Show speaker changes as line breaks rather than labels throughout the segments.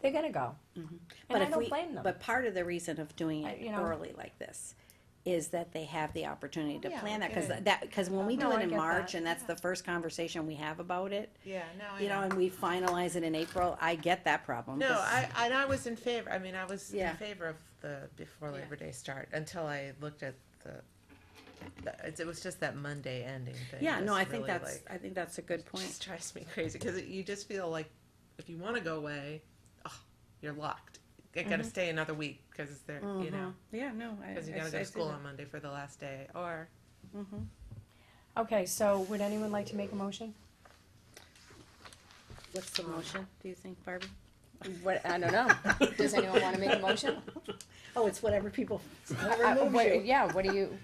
they're gonna go.
Mm-hmm.
But
And I
if
don't
we-
blame them.
But part of the reason of doing
I-
it
you know.
early like this is that they have the opportunity to
Yeah,
plan that, because
okay.
that, because when we do
No,
it
I
in
get
March,
that,
and that's
yeah. Oh,
the first conversation we have about it,
Yeah, no, I
you know, and we finalize it in April, I get that problem.
No,
'cause-
I, and I was in favor, I mean, I was in
Yeah.
favor of the before
Yeah.
Labor Day start, until I looked at the, the- it's- it was just that Monday ending thing.
Yeah, no,
was
I think
really,
that's,
like,
I think that's a good
Just
point.
drives me crazy, because you just feel like, if you wanna go away, oh, you're locked. I
Mm-hmm.
gotta stay another week, because they're, you know,
Mhm. Yeah, no. I-
because you
I
gotta
s-
go
I see
to school
that.
on Monday for the last day, or
Okay, so would anyone like to make a motion?
What's
mm-hmm.
the motion, do you think, Barbie?
What, I don't know. Does anyone wanna make a motion?
Oh, it's whatever people,
Uh,
whatever moves
what-
you.
Yeah, what do you?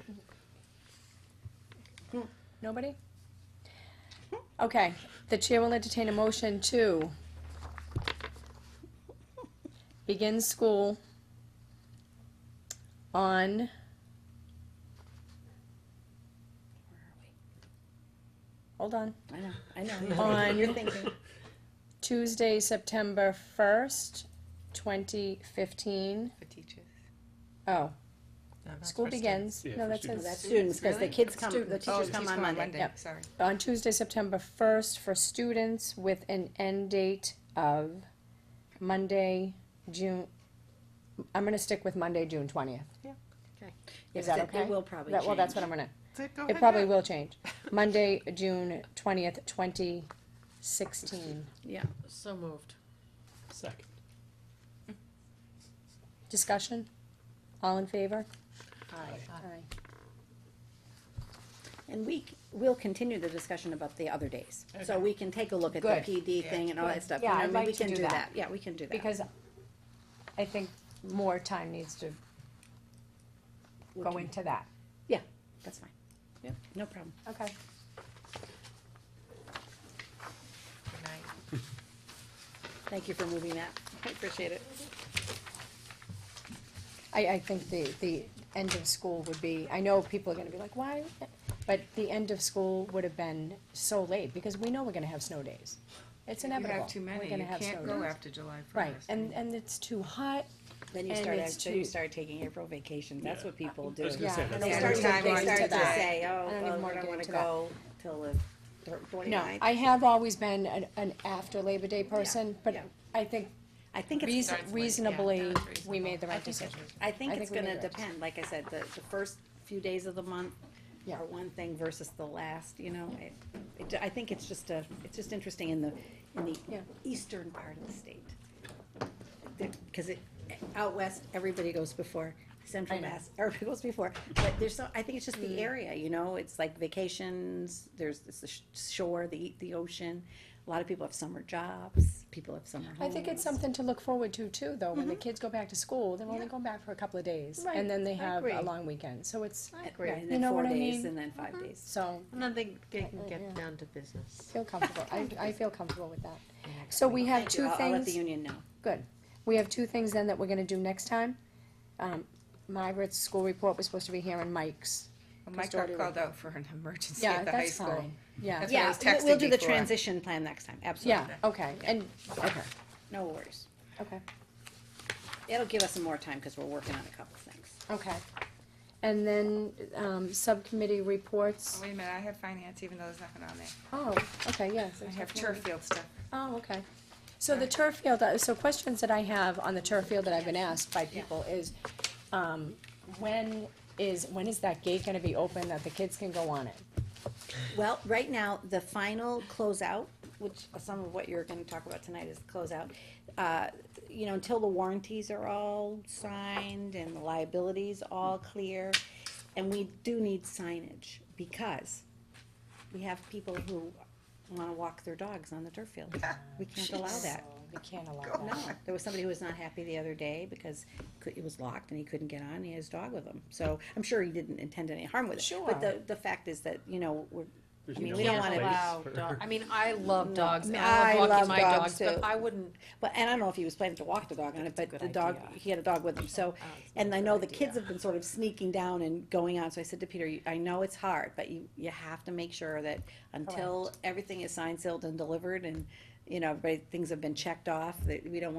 Nobody?
Okay, the chair will entertain a motion to begin school on Hold on,
I know, I know.
On-
You're thinking,
Tuesday, September first, twenty fifteen.
for teachers.
Oh,
No, that's
school
for students.
begins,
Yeah,
no,
for
that
no,
says.
that's students, because the
Really?
kids come, the
Students.
Oh,
teachers come on Monday.
Yep.
Sorry.
Oh.
on Tuesday, September first for students with an end date of Monday, June, I'm gonna stick with Monday, June twentieth. Is that
It
okay?
will probably
That, well, that's
change.
what I'm gonna,
So go
it
ahead,
probably
yeah.
will change. Monday, June twentieth, twenty sixteen.
So moved.
Second.
Discussion? All in favor? Aye.
And we, c- we'll continue the discussion about the other days, so we can take a look at the
Good.
PD thing and all that stuff.
Yeah,
You know,
I'd
I mean,
like
we
to
can
do that.
Yeah, we can do that.
Because I think more time needs to
We'll
Go
do-
into that.
That's fine. Yep, no problem.
Okay.
Good night.
Thank you for moving that. I appreciate it.
I, I think the, the end of school would be, I know people are gonna be like, why? But the end of school would have been so late, because we know we're gonna have snow days. It's
You
inevitable.
have too many,
We're gonna
you
have
can't
snow
go
days.
after July first.
Right, and, and it's too hot,
Then you
And
start,
it's
act- then you
too-
start taking April vacations, that's what people do.
I was gonna say,
Yeah.
And
that's
they
Yeah.
start to,
Yeah.
they
Yeah.
start to
Yeah.
say, oh,
I don't even
well,
wanna
I don't
get
wanna
into that.
go till the thir-
no,
twenty-ninth.
I have always been an, an after Labor Day person, but
yeah.
I think
I think it's
reason,
starts late, yeah,
reasonably,
that is
we made the
reasonable.
right decision.
I think
I
it's
think we
gonna
made the right
depend, like I said, the, the first few days of the month
Yeah.
are one thing versus the last, you know? It- it- I think it's just a, it's just interesting in the, in the
Yeah.
eastern part of the state. Because it, out west, everybody goes before, central
I know. Hmm.
mass, everybody goes before. But there's so, I think it's just the area, you know, it's like vacations, there's it's the sh- shore, the, the ocean. A lot of people have summer jobs, people have summer homes.
I think it's something to look forward to too, though,
Mm-hmm.
when the kids go back to school, they're only going back for a couple of days, and then they have
agree.
a long weekend, so it's,
Agree, and
You
then
know
four
what I
days,
mean? Mm-hmm.
and then five days.
so.
And then they, they can get down to business.
Feel comfortable, I, I feel comfortable with that. So we have
Thank you.
two
I'll- I'll let the
things,
union know.
good, we have two things then that we're gonna do next time. Um, Margaret's school report was supposed to be here and Mike's,
Mike got
custodial.
called out for an emergency
yeah,
at the high
that's
school.
fine, yeah,
That's what I was
we'll- We'll
texting
do the
before.
transition plan next time,
yeah,
absolutely.
okay, and, okay,
No worries.
okay,
It'll give us some more time, because we're working on a couple things.
okay. And then, um, subcommittee
Oh,
reports,
Wait a minute, I have finance, even though there's nothing on there.
oh, okay, yes.
I
there's
have
definitely-
turf field stuff.
Oh, okay. So the turf field, uh, so questions that I have on the turf field that I've been asked by people is, um, when is, when is that gate gonna be open that the kids can go on it?
Well, right now, the final closeout, which some of what you're gonna talk about tonight is closeout. Uh, You know, until the warranties are all signed and the liabilities all clear, and we do need signage, because we have people who wanna walk their dogs on the turf field. We can't allow that.
We can't allow
No,
that.
there was somebody who was not happy the other day because cou- it was locked and he couldn't get on, and he had his dog with him. So I'm sure he didn't intend any harm with it. But the,
Sure.
the fact is that, you know, we're,
There's
I mean,
no
we don't
place
wanna
allow
for-
dog- I mean, I love dogs. and
I
I love walking
love
my
dogs
dogs, but
too.
I wouldn't.
but, and I don't know if he was planning to walk the dog on it, but the dog, he had a dog with him, so. And I know the kids have been sort of sneaking down and going on, so I said to Peter, "You- I know it's hard, but you, you have to make sure that until everything is signed, sealed and delivered and, you know, everybody, things have been checked off, that we don't want